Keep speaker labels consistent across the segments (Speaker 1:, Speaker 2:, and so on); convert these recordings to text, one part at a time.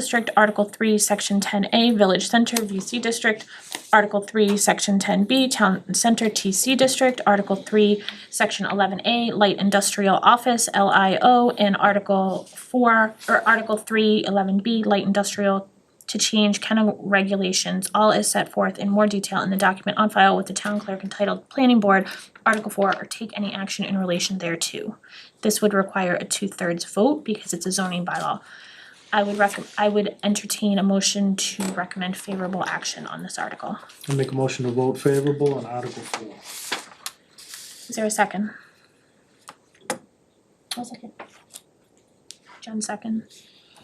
Speaker 1: District, Article three, Section ten A, Village Center, VC District, Article three, Section ten B, Town Center, TC District, Article three, Section eleven A, Light Industrial Office, LIO, and Article four, or Article three, eleven B, Light Industrial to change kennel regulations, all is set forth in more detail in the document on file with the town clerk entitled Planning Board, Article four, or take any action in relation thereto. This would require a two-thirds vote because it's a zoning bylaw. I would recom- I would entertain a motion to recommend favorable action on this article.
Speaker 2: I make a motion to vote favorable on Article Four.
Speaker 1: Is there a second? I'll second. Jen second.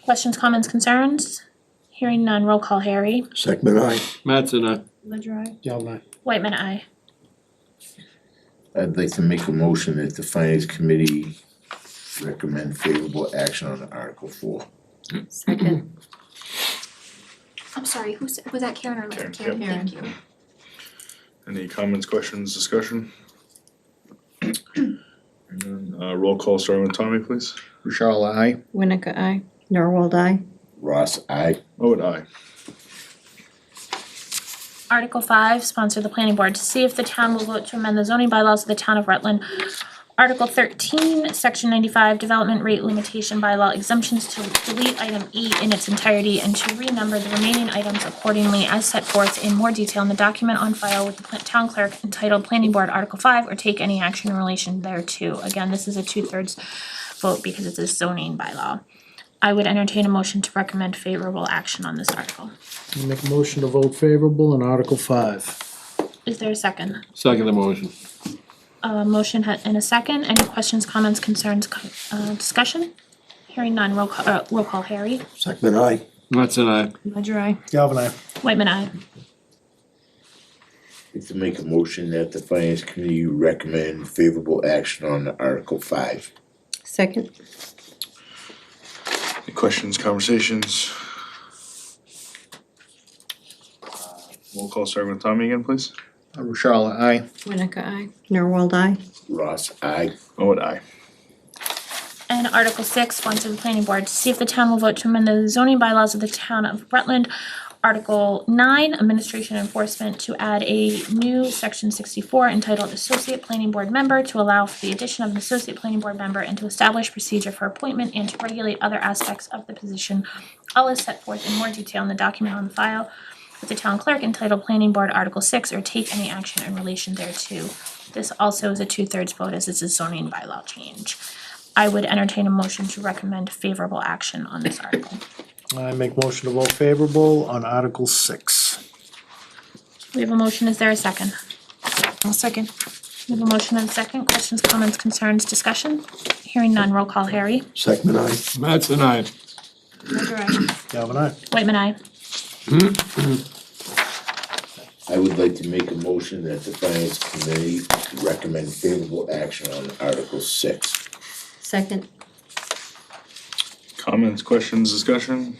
Speaker 1: Questions, comments, concerns? Hearing none, roll call Harry.
Speaker 3: Second I.
Speaker 4: Mattson, aye.
Speaker 1: Ledger eye.
Speaker 2: Galvin aye.
Speaker 1: Whitman aye.
Speaker 3: I'd like to make a motion that the finance committee recommend favorable action on Article Four.
Speaker 5: Second.
Speaker 6: I'm sorry, who's, was that Karen or Larry?
Speaker 7: Karen,
Speaker 6: Karen, thank you.
Speaker 7: Any comments, questions, discussion? And then, Uh, roll call, starting with Tommy, please.
Speaker 3: Bouchard, aye.
Speaker 5: Winika, aye. Norwold, aye.
Speaker 3: Ross, aye.
Speaker 7: Oh, and I.
Speaker 1: Article five, sponsor the planning board to see if the town will vote to amend the zoning bylaws of the town of Rutland. Article thirteen, section ninety-five, development rate limitation bylaw exemptions to delete item E in its entirety and to renumber the remaining items accordingly as set forth in more detail in the document on file with the pla- town clerk entitled Planning Board Article five or take any action in relation thereto. Again, this is a two-thirds vote because it's a zoning bylaw. I would entertain a motion to recommend favorable action on this article.
Speaker 2: I make a motion to vote favorable on Article Five.
Speaker 1: Is there a second?
Speaker 4: Second the motion.
Speaker 1: A motion ha- and a second, any questions, comments, concerns, co- uh, discussion? Hearing none, roll call, uh, roll call, Harry.
Speaker 3: Second I.
Speaker 4: Mattson, aye.
Speaker 5: Ledger, aye.
Speaker 2: Galvin aye.
Speaker 1: Whitman, aye.
Speaker 3: I'd like to make a motion that the finance committee recommend favorable action on Article Five.
Speaker 5: Second.
Speaker 7: Any questions, conversations? Roll call, starting with Tommy again, please.
Speaker 3: Bouchard, Uh, aye.
Speaker 5: Winika, aye. Norwold, aye.
Speaker 3: Ross, aye.
Speaker 7: Oh, and I.
Speaker 1: And Article six, sponsor the planning board, to see if the town will vote to amend the zoning bylaws of the town of Rutland. Article nine, administration enforcement, to add a new section sixty-four entitled Associate Planning Board Member to allow for the addition of an associate planning board member and to establish procedure for appointment and to regulate other aspects of the position. All is set forth in more detail in the document on file with the town clerk entitled Planning Board Article six or take any action in relation thereto. This also is a two-thirds vote as it's a zoning bylaw change. I would entertain a motion to recommend favorable action on this article.
Speaker 2: I make motion to vote favorable on Article Six.
Speaker 1: We have a motion, is there a second?
Speaker 5: I'll second.
Speaker 1: We have a motion and a second, questions, comments, concerns, discussion? Hearing none, roll call Harry.
Speaker 3: Second I.
Speaker 4: Mattson, aye.
Speaker 5: Ledger, aye.
Speaker 2: Galvin aye.
Speaker 1: Whitman, I.
Speaker 3: I would like to make a motion that the finance committee recommend favorable action on Article Six.
Speaker 5: Second.
Speaker 7: Comments, questions, discussion?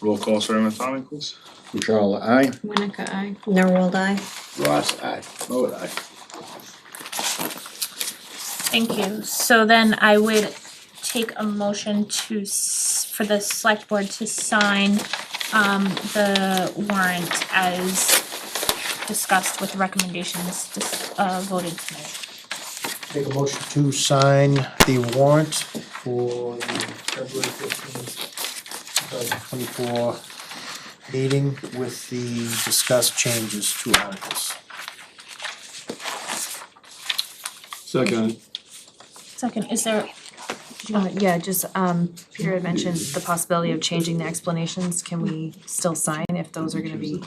Speaker 7: Roll call, starting with Tommy, please.
Speaker 3: Bouchard, aye.
Speaker 5: Winika, aye. Norwold, aye.
Speaker 3: Ross, aye.
Speaker 7: Oh, and I.
Speaker 1: Thank you. So then I would take a motion to, s- for the select board to sign um the warrant as discussed with recommendations dis- uh voted tonight.
Speaker 2: Make a motion to sign the warrant for the February fifteenth, two thousand twenty-four meeting with the discussed changes to articles.
Speaker 4: Second.
Speaker 1: Second, is there, did you
Speaker 8: Uh,
Speaker 1: want
Speaker 8: yeah, just, um, Peter had mentioned the possibility of changing the explanations, can we still sign if those are gonna be?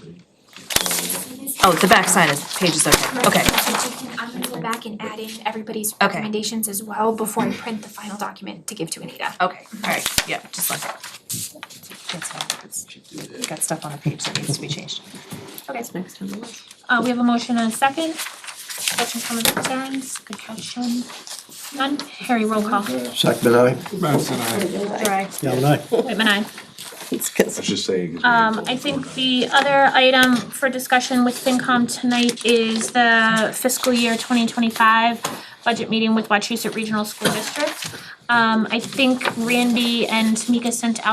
Speaker 8: Oh, the back side of the page is okay, Oh, okay,
Speaker 6: I'm gonna go back and add in everybody's
Speaker 8: Okay.
Speaker 6: recommendations as well before I print the final document to give to Anita.
Speaker 8: okay, alright, yeah, just like. That's fine, it's, we got stuff on the page that needs to be changed.
Speaker 5: That's next on the list.
Speaker 1: Uh, we have a motion and a second. Questions, comments, concerns? Good question. None? Harry, roll call.
Speaker 3: Second I.
Speaker 4: Mattson, aye.
Speaker 2: Galvin aye.
Speaker 1: Whitman, aye.
Speaker 5: It's
Speaker 7: I
Speaker 5: cause.
Speaker 7: was just saying.
Speaker 1: Um, I think the other item for discussion with FinCom tonight is the fiscal year twenty twenty-five budget meeting with Wachusett Regional School District. Um I think Randy and Tamika sent out.